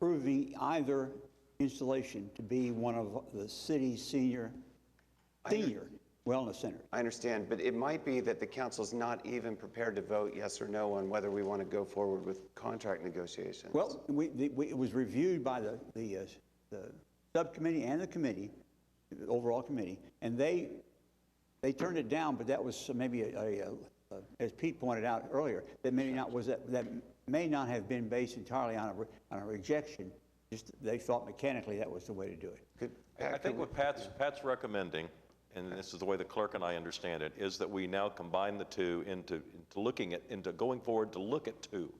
approving either installation to be one of the city's senior, senior wellness centers. I understand, but it might be that the council's not even prepared to vote yes or no on whether we want to go forward with contract negotiations. Well, we, the- we, it was reviewed by the, the, uh, the subcommittee and the committee, the overall committee, and they, they turned it down, but that was maybe a, a, uh, as Pete pointed out earlier, that may not, was that, that may not have been based entirely on a, re- on a rejection. Just, they thought mechanically that was the way to do it. Could- I Pat, could think we- what Pat's, Pat's recommending, and this is the way the clerk and I understand it, is that we now combine the two into, into looking at, into going forward to look at two.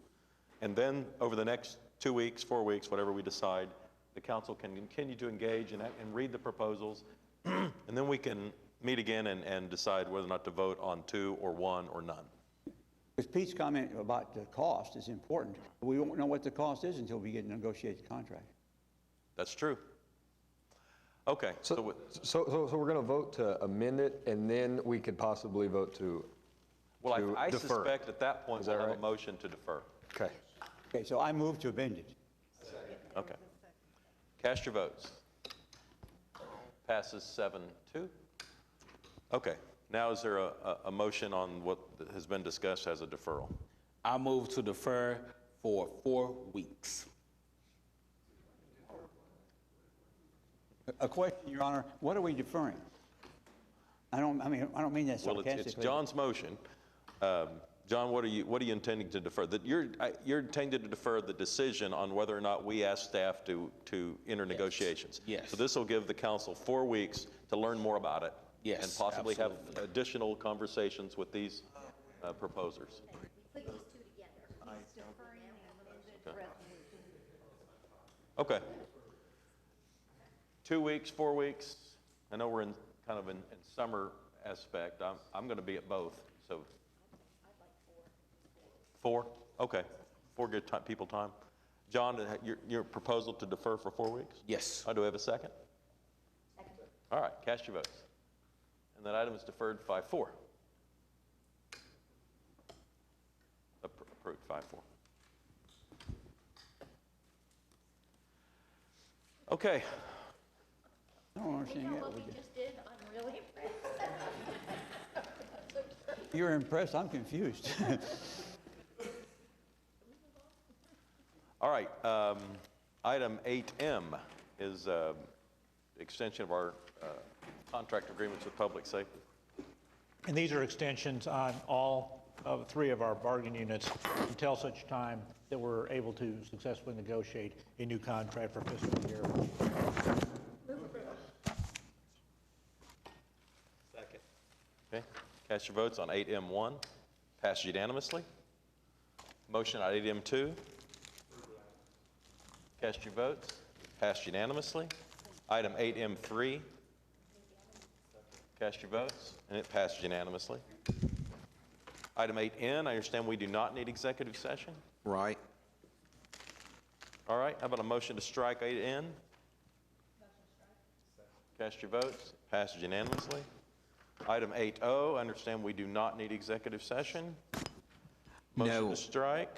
And then, over the next two weeks, four weeks, whatever we decide, the council can continue to engage and, and read the proposals. And then we can meet again and, and decide whether or not to vote on two or one or none. Because Pete's comment about the cost is important. We won't know what the cost is until we get a negotiated contract. That's true. Okay, so, So, with- so, so so we're going to vote to amend it, and then we could possibly vote to, well, to I- I defer. suspect at that point, Is that we'll have a right? motion to defer. okay. Okay, so I move to amend it. Okay. Cast your votes. Passes seven, two. Okay, now is there a, a, a motion on what has been discussed as a deferral? I move to defer for four weeks. A question, Your Honor, what are we deferring? I don't, I mean, I don't mean that Well, it's, it's sarcastically. John's motion. Um, John, what are you, what are you intending to defer? That you're, I- you're intending to defer the decision on whether or not we ask staff to, to enter negotiations. Yes. So this will give the council four weeks to learn more about it. And Yes, possibly have absolutely. additional conversations with these uh, proposers. put these two together. He's deferring the amended resolution. Okay. Two weeks, four weeks. I know we're in, kind of in, in summer aspect. I'm, I'm going to be at both, so. I'd like four. Four? Okay. Four good ti- people time. John, uh, your, your proposal to defer for four weeks? Yes. Uh, Do we have a second? Second. All right, cast your votes. And that item is deferred five four. Approved five four. Okay, I don't understand You know that. what we just did? I'm really impressed. You're impressed, I'm confused. all right. um, Item 8M is um, extension of our uh, contract agreements with public safety. And these are extensions on all of three of our bargaining units until such time that we're able to successfully negotiate a new contract for fiscal year. Okay, cast your votes on 8M1, passed unanimously. Motion on 8M2. Cast your votes, passed unanimously. Item 8M3. Cast your votes, and it passed unanimously. Item 8N, I understand we do not need executive session. Right. All right, how about a motion to strike 8N? Cast your votes, passed unanimously. Item 8O, I understand we do not need executive session. Motion No. to strike,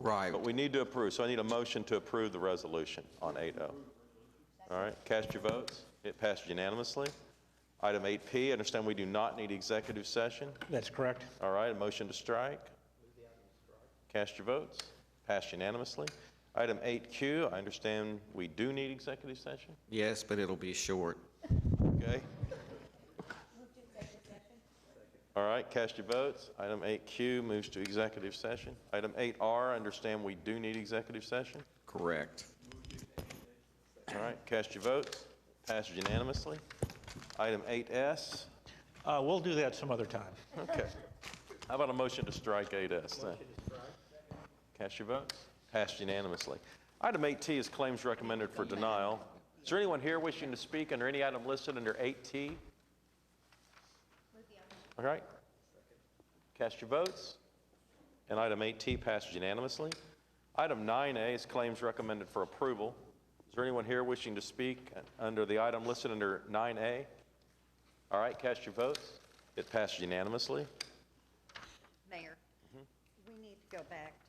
Right. but we need to approve, so I need a motion to approve the resolution on 8O. All right, cast your votes, it passed unanimously. Item 8P, I understand we do not need executive session. That's correct? All right, a motion to strike. Cast your votes. Passed unanimously. Item 8Q, I understand we do need executive session, Yes, but it'll be short. okay? All right, cast your votes. Item 8Q moves to executive session. Item 8R, I understand we do need executive session. Correct. All right, cast your votes. Passed unanimously. Item 8S, Uh, We'll do that some other time. Okay. How about a motion to strike 8S then? Cast your votes. Passed unanimously. Item 8T is claims recommended for denial. Is there anyone here wishing to speak under any item listed under 8T? All right. Cast your votes. And item 8T passed unanimously. Item 9A is claims recommended for approval. Is there anyone here wishing to speak under the item listed under 9A? All right, cast your votes. It passed unanimously. Mayor, we need to uh, go back